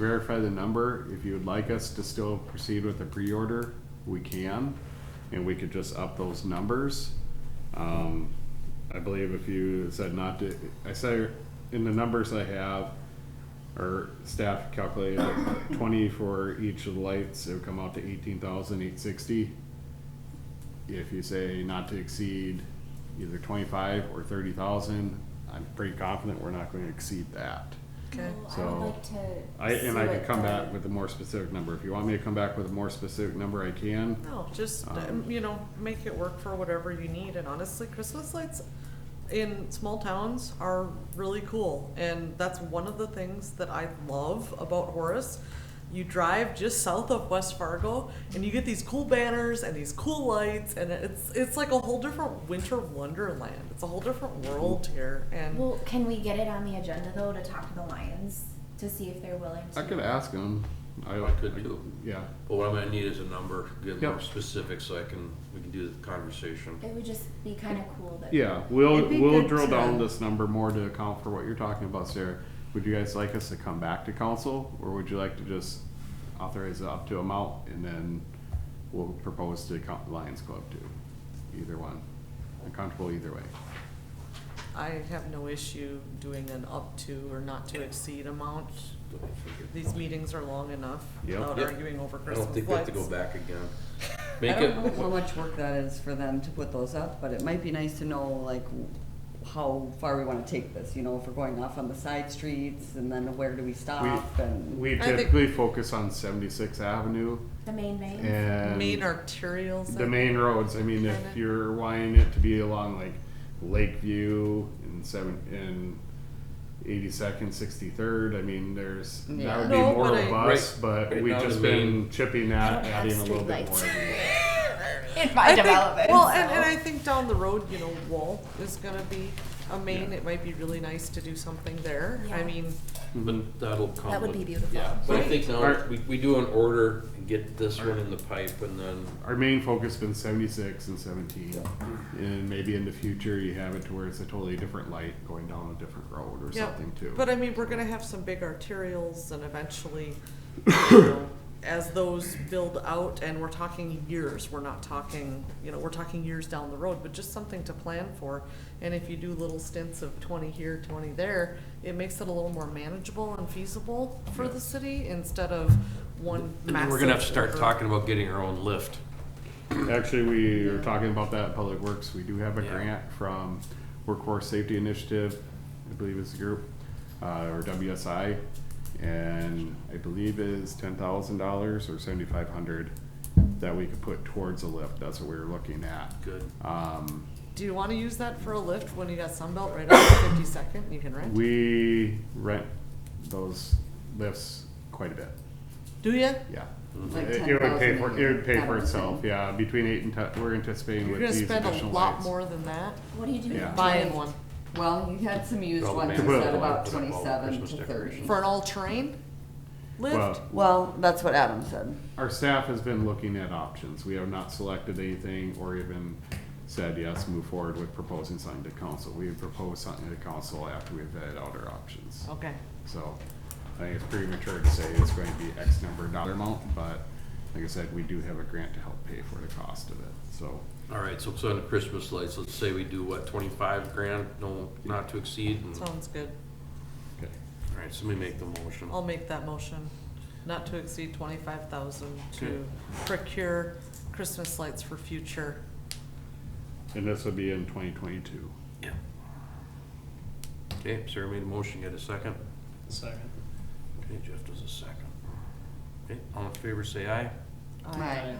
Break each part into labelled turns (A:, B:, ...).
A: verify the number. If you would like us to still proceed with the pre-order, we can, and we could just up those numbers. Um, I believe if you said not to, I say, in the numbers I have, or staff calculated twenty for each of the lights, it would come out to eighteen thousand eight sixty. If you say not to exceed either twenty-five or thirty thousand, I'm pretty confident we're not gonna exceed that.
B: Okay.
C: Well, I
A: So,
C: would like to.
A: I, and
C: see
A: I
C: what
A: could come
C: the-
A: back with a more specific number. If you want me to come back with a more specific number, I can.
B: No, just, um,
A: Um,
B: you know, make it work for whatever you need, and honestly, Christmas lights in small towns are really cool, and that's one of the things that I love about Horace. You drive just south of West Fargo, and you get these cool banners and these cool lights, and it's, it's like a whole different winter wonderland, it's a whole different world here, and,
C: Well, can we get it on the agenda though to talk to the Lions to see if they're willing to?
A: I could ask them.
D: I could too.
A: Yeah,
D: But what I'm gonna need is a number, get
A: Yep.
D: more specific so I can, we can do the conversation.
C: It would just be kind of cool that.
A: yeah. We'll,
B: It'd be
A: we'll
B: good
A: drill
B: to-
A: down this number more to account for what you're talking about, Sarah. Would you guys like us to come back to council or would you like to just authorize it up to amount and then we'll propose to Co- Lions Club too? Either one. I'm comfortable either way.
B: I have no issue doing an up to or not to exceed amount. These meetings are long enough
A: Yep.
B: without
D: Yep.
B: arguing over
D: I
B: Christmas lights.
D: don't think we have to go back again. Make
E: I
D: it,
E: don't know how much work that is for them to put those up, but it might be nice to know like w- how far we wanna take this, you know, if we're going off on the side streets and then where do we
B: Uh,
E: stop and.
A: We
B: I think-
A: typically focus on Seventy-Sixth Avenue
C: The main main.
A: and.
B: main arterials. I
A: the main
B: think.
A: roads. I mean, if
B: Kinda.
A: you're wanting it to be along like Lakeview and seven and eighty second, sixty third, I mean, there's that
E: Yeah.
A: would
B: No,
A: be more
B: but I-
A: robust,
D: Right.
A: but
D: Right
A: we've
D: now
A: just
D: the main-
A: been chipping at,
C: don't have
A: adding a little bit more.
C: streetlights.
A: every year.
C: In
B: I
C: my
B: think-
C: development.
B: Well, and,
C: so.
B: and I think down the road, you know, Wall is gonna be a main. It might be really nice to do something there. I
C: Yeah.
B: mean,
D: but that'll come.
C: That would
D: with-
C: be beautiful.
D: Yeah, but I
B: Right.
D: think now,
A: Alright.
D: we, we do an order and get this one in the pipe and then,
A: Our main focus has been seventy six and seventeen, and maybe in the future you have it to where it's a totally different light going down a different road or
B: yeah.
A: something too.
B: But I mean, we're gonna have some big arterials and eventually, you know, as those build out, and we're talking years, we're not talking, you know, we're talking years down the road, but just something to plan for. And if you do little stints of twenty here, twenty there, it makes it a little more manageable and feasible for the city instead of one massive.
D: we're gonna have to start
B: over-
D: talking about getting our own lift.
A: Actually, we were talking about that in Public Works. We do have a
D: Yeah.
A: grant from Workforce Safety Initiative, I believe is the group, uh, or WSI. And I believe is ten thousand dollars or seventy-five hundred that we could put towards a lift. That's what we were looking at.
D: Good.
A: Um,
B: Do you want to use that for a lift when you got Sunbelt right off the 52nd? You can rent.
A: we rent those lifts quite a bit,
B: Do you?
A: yeah.
E: Like
A: It it would pay
E: 10,000
A: for,
E: a
A: it
E: year,
A: would pay
E: that
A: for
E: would
A: itself,
E: be-
A: yeah, between eight and ten, we're anticipating
B: You're
A: with
B: gonna
A: these
B: spend
A: additional lights.
B: a lot more than that
C: What do you do?
A: Yeah.
C: with
B: buying
C: light?
B: one
E: Well, you had some used
D: Oh, Well,
E: ones,
D: maybe
E: you
A: we'll
E: said about
D: put up all the
E: twenty-seven
D: Christmas
E: to thirty.
D: decorations.
B: for an all-terrain lift.
A: Well,
E: Well, that's what Adam said.
A: Our staff has been looking at options. We have not selected anything or even said, yes, move forward with proposing something to council. We would propose something to council after we've vetted out our options.
B: Okay.
A: So I think it's premature to say it's going to be X number of dollar amount, but like I said, we do have a grant to help pay for the cost of it, so.
D: All right, so, so on the Christmas lights, let's say we do what, twenty-five grand, no, not to exceed? and- All
B: Sounds good.
A: okay.
D: right, somebody make the motion.
B: I'll make that motion. Not to exceed 25,000
D: Okay.
B: to procure Christmas lights for future.
A: And this would be in twenty twenty-two.
D: Yeah. Okay, Sarah made a motion, get a second?
F: Second.
D: Okay, Jeff does a second. Okay, all in favor, say aye.
B: I-
D: All right.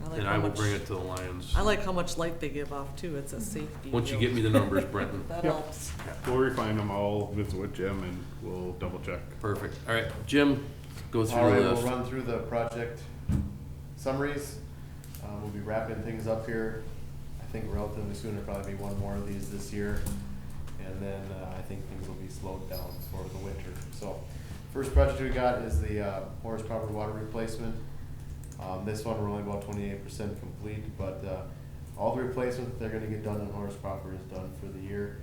B: I like
D: Then
B: how
D: I will
B: much-
D: bring it to the Lions.
B: I like how much light they give off too. It's a safety.
D: Once you
B: deal.
D: get me the numbers, Brenton.
B: That
A: Yep.
B: helps.
A: We'll refine them all, visit with Jim, and we'll double check.
D: Perfect. All right, Jim, go
F: All
D: through
F: right,
D: the
F: we'll
D: list.
F: run through the project summaries. Uh, We'll be wrapping things up here. I think relatively soon, there'll probably be one more of these this year. And then uh, I think things will be slowed down for the winter. So first project we got is the uh, Horace Proper Water Replacement. Um, This one, we're only about twenty-eight percent complete, but uh, all the replacement that they're gonna get done in Horace Proper is done for the year.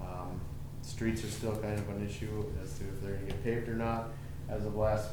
F: Um, Streets are still kind of an issue as to if they're gonna get paved or not. as of last